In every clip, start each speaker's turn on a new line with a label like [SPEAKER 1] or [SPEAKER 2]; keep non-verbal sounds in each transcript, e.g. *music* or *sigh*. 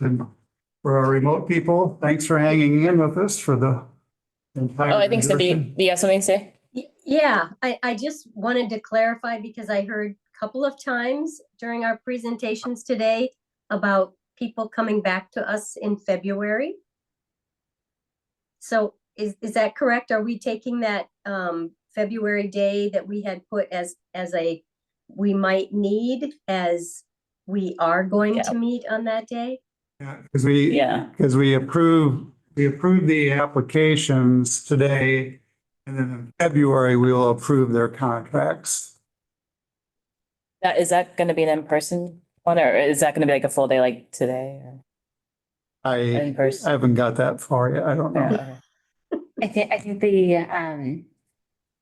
[SPEAKER 1] And for our remote people, thanks for hanging in with us for the entire.
[SPEAKER 2] Oh, I think so. Do
[SPEAKER 1] version.
[SPEAKER 2] you, do you have something to say?
[SPEAKER 3] Y- Yeah, I, I just wanted to clarify because I heard a couple of times during our presentations today about people coming back to us in February. So is, is that correct? Are we taking that um, February day that we had put as, as a, we might need as we are going
[SPEAKER 2] Yeah.
[SPEAKER 3] to meet on that day?
[SPEAKER 1] Yeah, because we,
[SPEAKER 2] Yeah.
[SPEAKER 1] because we approve, we approve the applications today. And then in February, we will approve their contracts.
[SPEAKER 2] That, is that gonna be an in-person one or is that gonna be like a full day like today or
[SPEAKER 1] I,
[SPEAKER 2] in person?
[SPEAKER 1] I haven't got that far yet. I don't know.
[SPEAKER 4] I think, I think the, um,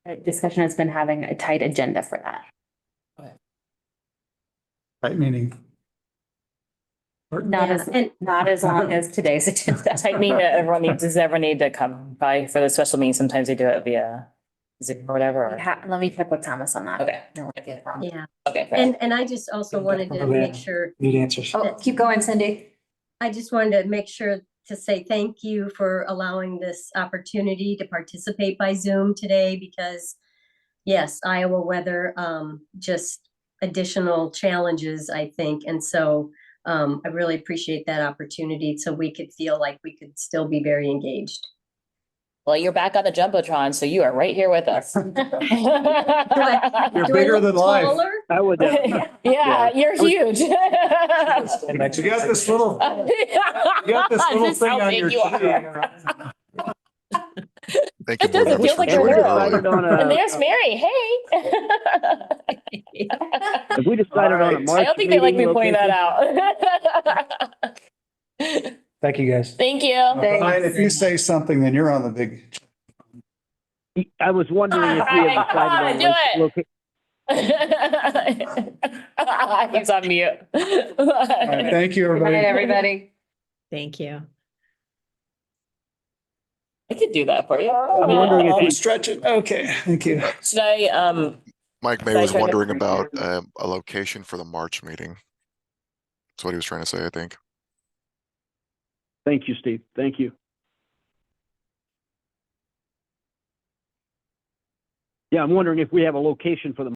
[SPEAKER 4] uh, discussion has been having a tight agenda for that.
[SPEAKER 1] Right meeting.
[SPEAKER 4] Not
[SPEAKER 3] Yeah,
[SPEAKER 4] as,
[SPEAKER 3] And,
[SPEAKER 4] not
[SPEAKER 3] *laughs*
[SPEAKER 4] as long as today's agenda.
[SPEAKER 2] I mean, that everyone needs, does everyone need to come by for the special meeting? Sometimes they do it via Zoom or whatever. or-
[SPEAKER 4] Ha- Let me check with Thomas on that.
[SPEAKER 2] Okay.
[SPEAKER 4] No, I get it wrong.
[SPEAKER 3] yeah,
[SPEAKER 2] Okay. fair.
[SPEAKER 3] and, and I just also wanted to make sure
[SPEAKER 5] Need answers.
[SPEAKER 4] Oh, keep going, Cindy.
[SPEAKER 3] I just wanted to make sure to say thank you for allowing this opportunity to participate by Zoom today because yes, Iowa weather, um, just additional challenges, I think. And so um, I really appreciate that opportunity. So we could feel like we could still be very engaged.
[SPEAKER 2] Well, you're back on the Jumbotron, so you are right here with
[SPEAKER 4] *laughs*
[SPEAKER 2] us. *laughs*
[SPEAKER 1] You're
[SPEAKER 3] Do I
[SPEAKER 1] bigger
[SPEAKER 3] look
[SPEAKER 1] than life.
[SPEAKER 3] taller?
[SPEAKER 2] *laughs*
[SPEAKER 5] I would.
[SPEAKER 2] Yeah, you're huge. *laughs*
[SPEAKER 1] You got this little, you got this little
[SPEAKER 2] Just how
[SPEAKER 1] thing on
[SPEAKER 2] big
[SPEAKER 1] your
[SPEAKER 2] you are.
[SPEAKER 1] *laughs* chin.
[SPEAKER 6] Thank you.
[SPEAKER 2] It doesn't
[SPEAKER 6] very much
[SPEAKER 2] feel
[SPEAKER 6] for
[SPEAKER 2] like a
[SPEAKER 6] joining
[SPEAKER 2] girl. *laughs*
[SPEAKER 6] early.
[SPEAKER 2] And there's Mary, *laughs* hey.
[SPEAKER 5] If we decided on a March.
[SPEAKER 2] I don't think they like me
[SPEAKER 5] meeting
[SPEAKER 2] pointing that
[SPEAKER 5] location-
[SPEAKER 2] out. *laughs*
[SPEAKER 5] Thank you, guys.
[SPEAKER 2] Thank you.
[SPEAKER 1] Ryan, If you say something, then you're on the big.
[SPEAKER 5] I was wondering if we had
[SPEAKER 2] Come on,
[SPEAKER 5] decided
[SPEAKER 2] do
[SPEAKER 5] on
[SPEAKER 2] it.
[SPEAKER 5] a location.
[SPEAKER 2] He's on mute.
[SPEAKER 1] All
[SPEAKER 2] *laughs*
[SPEAKER 1] right, Thank you,
[SPEAKER 4] Good night,
[SPEAKER 1] everybody.
[SPEAKER 4] everybody.
[SPEAKER 7] Thank you.
[SPEAKER 2] I could do that for you.
[SPEAKER 5] I'm wondering if we
[SPEAKER 1] stretching. Okay, thank you.
[SPEAKER 2] Should I, um,
[SPEAKER 6] Mike May
[SPEAKER 2] Should I
[SPEAKER 6] was
[SPEAKER 2] turn it
[SPEAKER 6] wondering
[SPEAKER 2] over to
[SPEAKER 6] about
[SPEAKER 2] you?
[SPEAKER 6] um, a location for the March meeting. That's what he was trying to say, I think.
[SPEAKER 5] Thank you, Steve. Thank you. Yeah, I'm wondering if we have a location for the